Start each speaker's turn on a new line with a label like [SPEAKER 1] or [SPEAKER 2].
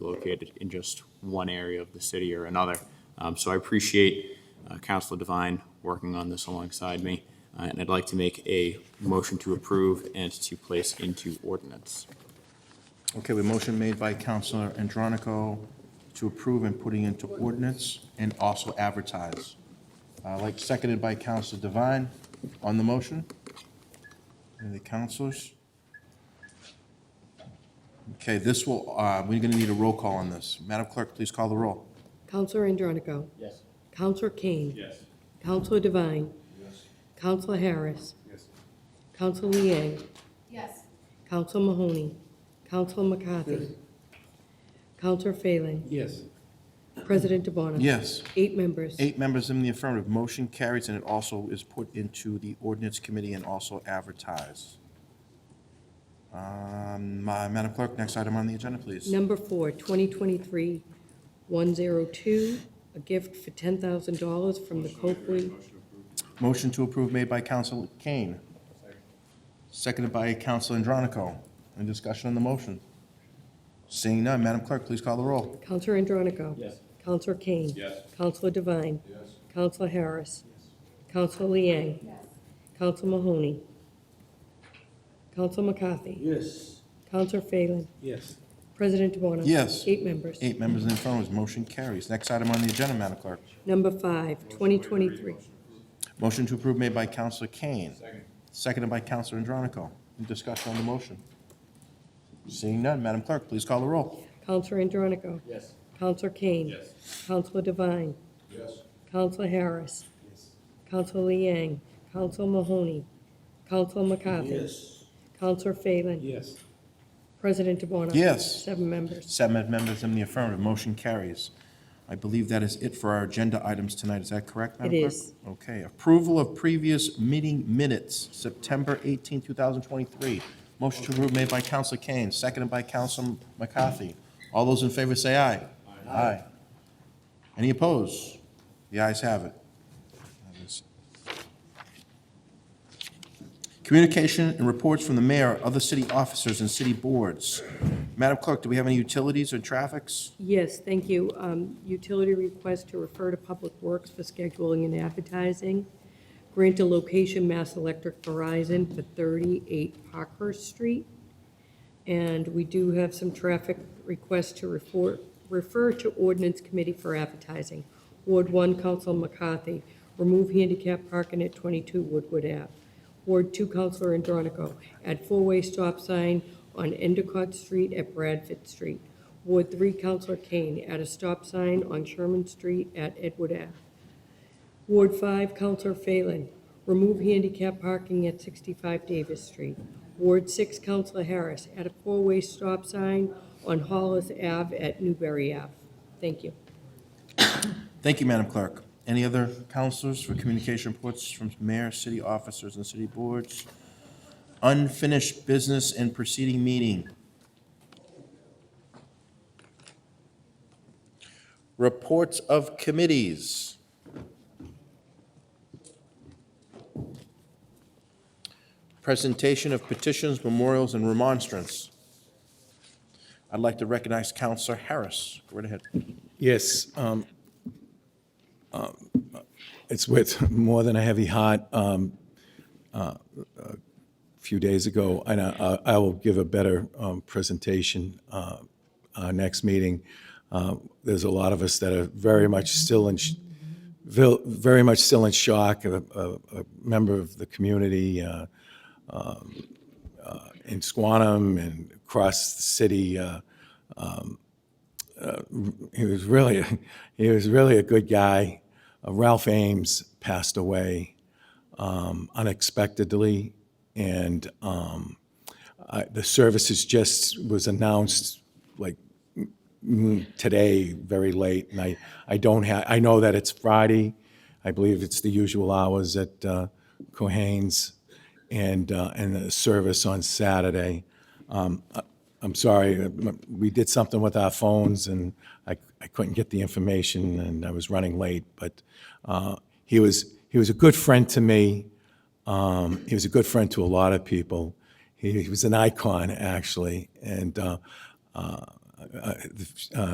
[SPEAKER 1] located in just one area of the city or another. Um, So I appreciate uh, Counselor Devine working on this alongside me, uh, and I'd like to make a motion to approve and to place into ordinance.
[SPEAKER 2] Okay, we motion made by Counselor Andronico to approve and putting into ordinance and also advertise. Uh, Like seconded by Counselor Devine on the motion. Any of the counselors? Okay, this will, uh, we're going to need a roll call on this. Madam Clerk, please call the roll.
[SPEAKER 3] Counselor Andronico.
[SPEAKER 4] Yes.
[SPEAKER 3] Counselor Kane.
[SPEAKER 4] Yes.
[SPEAKER 3] Counselor Devine. Counselor Harris.
[SPEAKER 4] Yes.
[SPEAKER 3] Counselor Liang.
[SPEAKER 5] Yes.
[SPEAKER 3] Counselor Mahoney. Counselor McCarthy. Counselor Phelan.
[SPEAKER 4] Yes.
[SPEAKER 3] President DeBona.
[SPEAKER 2] Yes,
[SPEAKER 3] Eight members.
[SPEAKER 2] eight members in the affirmative. Motion carries, and it also is put into the ordinance committee and also advertised. Um, my- Madam Clerk, next item on the agenda, please.
[SPEAKER 3] Number four, 2023-102, a gift for $10,000 from the Copley.
[SPEAKER 2] Motion to approve made by Counsel Kane. Seconded by Counsel Andronico. Any discussion on the motion? Seeing none, Madam Clerk, please call the roll.
[SPEAKER 3] Counselor Andronico.
[SPEAKER 4] Yes.
[SPEAKER 3] Counselor Kane.
[SPEAKER 4] Yes.
[SPEAKER 3] Counselor Devine.
[SPEAKER 4] Yes.
[SPEAKER 3] Counselor Harris. Counselor Liang.
[SPEAKER 5] Yes.
[SPEAKER 3] Counselor Mahoney. Counselor McCarthy.
[SPEAKER 4] Yes.
[SPEAKER 3] Counselor Phelan.
[SPEAKER 4] Yes.
[SPEAKER 3] President DeBona.
[SPEAKER 2] Yes.
[SPEAKER 3] Eight members.
[SPEAKER 2] Eight members in the affirmative, motion carries. Next item on the agenda, Madam Clerk.
[SPEAKER 3] Number five, 2023.
[SPEAKER 2] Motion to approve made by Counsel Kane. Seconded by Counsel Andronico. Any discussion on the motion? Seeing none, Madam Clerk, please call the roll.
[SPEAKER 3] Counselor Andronico.
[SPEAKER 4] Yes.
[SPEAKER 3] Counselor Kane. Counselor Devine.
[SPEAKER 4] Yes.
[SPEAKER 3] Counselor Harris. Counselor Liang. Counselor Mahoney. Counselor McCarthy.
[SPEAKER 4] Yes.
[SPEAKER 3] Counselor Phelan.
[SPEAKER 4] Yes.
[SPEAKER 3] President DeBona.
[SPEAKER 2] Yes.
[SPEAKER 3] Seven members.
[SPEAKER 2] Seven members in the affirmative, motion carries. I believe that is it for our agenda items tonight, is that correct, Madam Clerk?
[SPEAKER 3] is.
[SPEAKER 2] Okay, approval of previous meeting minutes, September 18, 2023. Motion to approve made by Counsel Kane, seconded by Counsel McCarthy. All those in favor say aye. Aye. Any opposed? The ayes have it. That is- Communication and reports from the mayor, other city officers, and city boards. Madam Clerk, do we have any utilities or traffics?
[SPEAKER 3] Yes, thank you. Um, Utility request to refer to Public Works for scheduling and advertising. Grant a location, Mass Electric Verizon, for 38 Parker Street. And we do have some traffic requests to refer, refer to ordinance committee for advertising. Ward 1, Council McCarthy, remove handicap parking at 22 Woodward Ave. Ward 2, Councilor Andronico, add four-way stop sign on Endicott Street at Bradford Street. Ward 3, Councilor Kane, add a stop sign on Sherman Street at Edward Ave. Ward 5, Counselor Phelan, remove handicap parking at 65 Davis Street. Ward 6, Counselor Harris, at a four-way stop sign on Hollis Ave at Newberry Ave. Thank you.
[SPEAKER 2] Thank you, Madam Clerk. Any other counselors for communication reports from mayor, city officers, and city boards? Unfinished business and preceding meeting. Reports of committees. Presentation of petitions, memorials, and remonstrance. I'd like to recognize Counselor Harris. Go right ahead.
[SPEAKER 6] Yes. um, um, It's with more than a heavy heart. um, uh, A few days ago, and I I will give a better um, presentation uh, our next meeting. Uh, There's a lot of us that are very much still in, sh- vil- very much still in shock, a a- a member of the community, uh, um, uh, in Squantum and across the city, uh, he was really a- he was really a good guy. Uh, Ralph Ames passed away um, unexpectedly, and um, I, the services just was announced like mm, mm, today, very late. And I I don't have I know that it's Friday. I believe it's the usual hours at uh, Cohane's, and uh, and the service on Saturday. I'm sorry, uh, m- we did something with our phones, and I I couldn't get the information, and I was running late, but uh, he was, he was a good friend to me. Um, He was a good friend to a lot of people. He he was an icon, actually, and uh, uh, uh, the, uh,